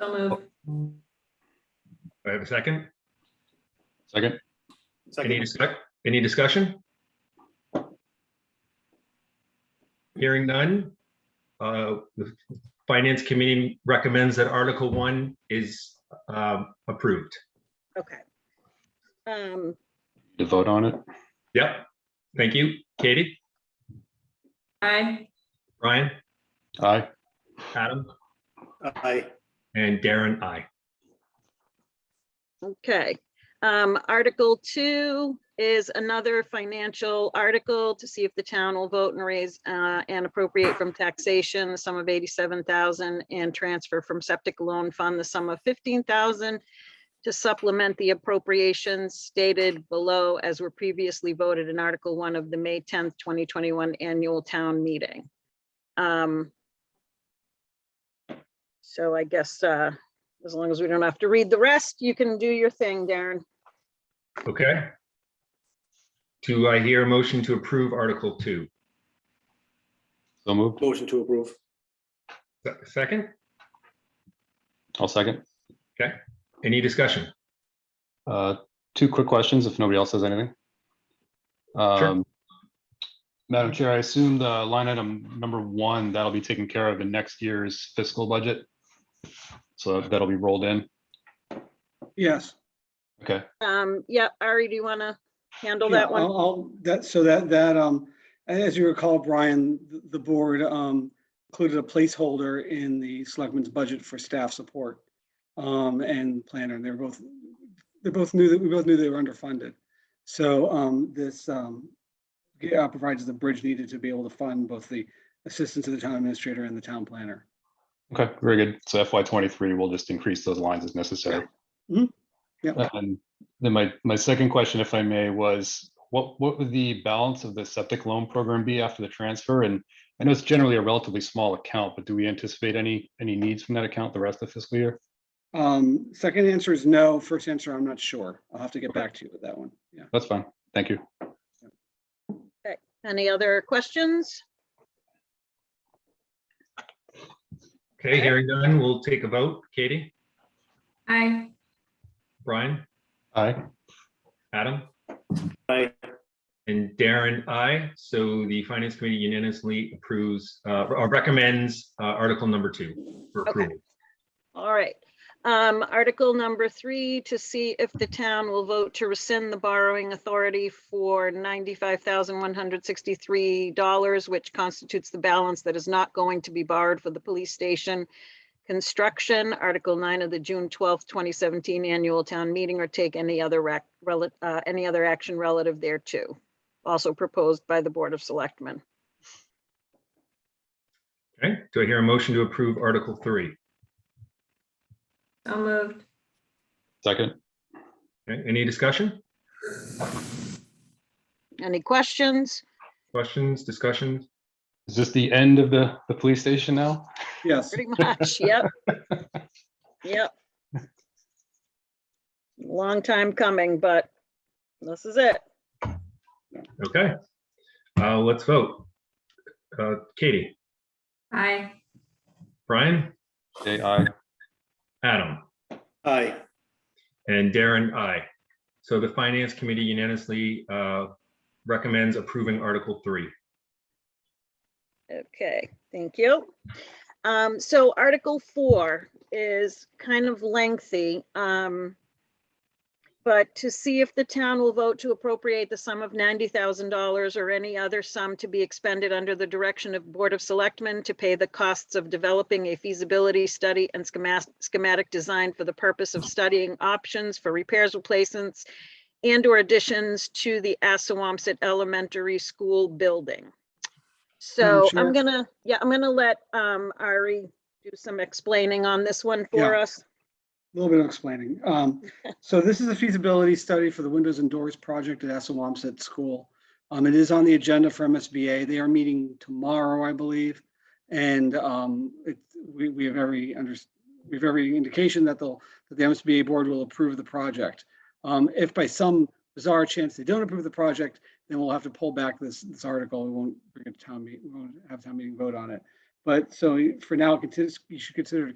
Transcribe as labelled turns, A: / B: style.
A: So move.
B: Do I have a second?
C: Second,
B: Any discuss, any discussion? Hearing none. Uh, The Finance Committee recommends that Article One is um, approved.
D: Okay. Um,
C: to vote on it?
B: Yep. Thank you. Katie,
A: Aye.
B: Brian,
C: Aye.
B: Adam,
E: Aye.
B: and Darren, I.
D: okay. Um, Article two is another financial article to see if the town will vote and raise uh, and appropriate from taxation, the sum of eighty-seven thousand and transfer from septic loan fund, the sum of fifteen thousand to supplement the appropriations stated below as were previously voted in Article one of the May tenth, twenty twenty-one annual town meeting. Um, So I guess, uh, as long as we don't have to read the rest, you can do your thing, Darren.
B: Okay. Do I hear a motion to approve Article Two?
C: So moved.
E: Motion to approve.
B: Se- Second,
C: I'll second.
B: any discussion?
C: Uh, Two quick questions, if nobody else has anything. Um, Madam Chair, I assume the line item number one, that'll be taken care of in next year's fiscal budget. So that'll be rolled in.
F: Yes.
C: Okay,
D: Um, yeah, Ari, do you want to handle
F: yeah,
D: that one?
F: I'll- I'll- that, so that, that, um, as you recall, Brian, the, the board, um, included a placeholder in the selectmen's budget for staff support. Um, and planner, and they're both, they both knew that, we both knew they were underfunded. So, um, this, um, yeah, provides the bridge needed to be able to fund both the assistance to the town administrator and the town planner.
C: okay, very good. So FY twenty-three, we'll just increase those lines as necessary.
F: Yeah. Mhm. Yeah.
C: And then my, my second question, if I may, was what, what would the balance of the septic loan program be after the transfer? And I know it's generally a relatively small account, but do we anticipate any, any needs from that account the rest of the fiscal year?
F: Um, second answer is no, first answer, I'm not sure. I'll have to get
C: Okay.
F: back to you with that one, yeah.
C: That's fine. Thank you.
D: Any other questions?
B: Okay, hearing none, we'll take a vote. Katie,
A: Aye.
B: Brian,
C: Aye.
B: Adam?
E: Aye.
B: And Darren, I. So the Finance Committee unanimously approves, uh, or recommends uh, Article Number Two for
D: Okay.
B: approval.
D: All right. Um, article number three, to see if the town will vote to rescind the borrowing authority for ninety-five thousand one hundred sixty-three dollars, which constitutes the balance that is not going to be borrowed for the police station construction, article nine of the June twelfth, twenty seventeen annual town meeting, or take any other rec, rel- uh, any other action relative thereto. Also proposed by the Board of Selectmen.
B: Okay, do I hear a motion to approve Article Three?
A: So moved.
C: Second.
B: Okay, Any discussion,
D: Any questions?
B: questions, discussions?
C: Is this the end of the, the police station now?
F: Yes.
D: Pretty much, yep. Yep. Long time coming, but this is it.
B: Okay, uh, let's vote. Uh, Katie,
A: Aye.
B: Brian,
C: Okay, aye.
B: Adam,
E: Aye.
B: and Darren, I. So the Finance Committee unanimously uh, recommends approving Article Three.
D: Okay, thank you. Um, so Article four is kind of lengthy, um. But to see if the town will vote to appropriate the sum of ninety thousand dollars or any other sum to be expended under the direction of Board of Selectmen to pay the costs of developing a feasibility study and schematic, schematic design for the purpose of studying options for repairs, replacements. And or additions to the Assawamsett Elementary School building. So I'm
F: Chair?
D: gonna, yeah, I'm gonna let um Ari do some explaining on this one for
F: Yeah.
D: us.
F: A little bit of explaining. Um, so this is a feasibility study for the Windows and Doors project at Assawamsett School. Um, it is on the agenda for MSBA. They are meeting tomorrow, I believe. And, um, it, we, we have every under, we have every indication that they'll, that the MSBA board will approve the project. Um, if by some bizarre chance they don't approve the project, then we'll have to pull back this, this article. We won't bring it to town meeting, we won't have town meeting vote on it. But so for now, consider- you should consider it